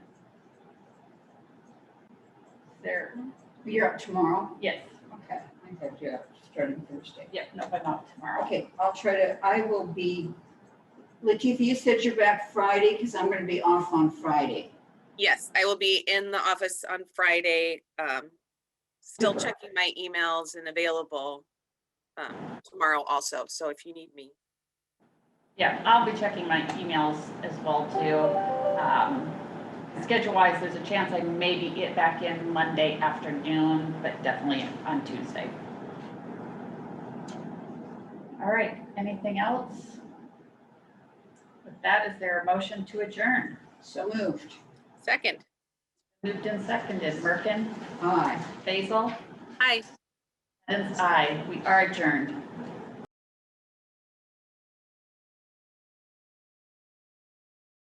They're, You're up tomorrow. yes, Okay. I have you up starting Thursday. yeah, no, but not tomorrow. Okay, I'll try to, I will be, Latifa, you said you're back Friday because I'm going to be off on Friday. Yes, I will be in the office on Friday. um, Still checking my emails and available um, tomorrow also, so if you need me. Yeah, I'll be checking my emails as well too. Um, Schedule wise, there's a chance I maybe get back in Monday afternoon, but definitely on Tuesday. All right, anything else? With that, is there a motion to adjourn? So moved. Second, Moved and seconded, Merkin, Aye. Basil, hi. Evans, aye, we are adjourned.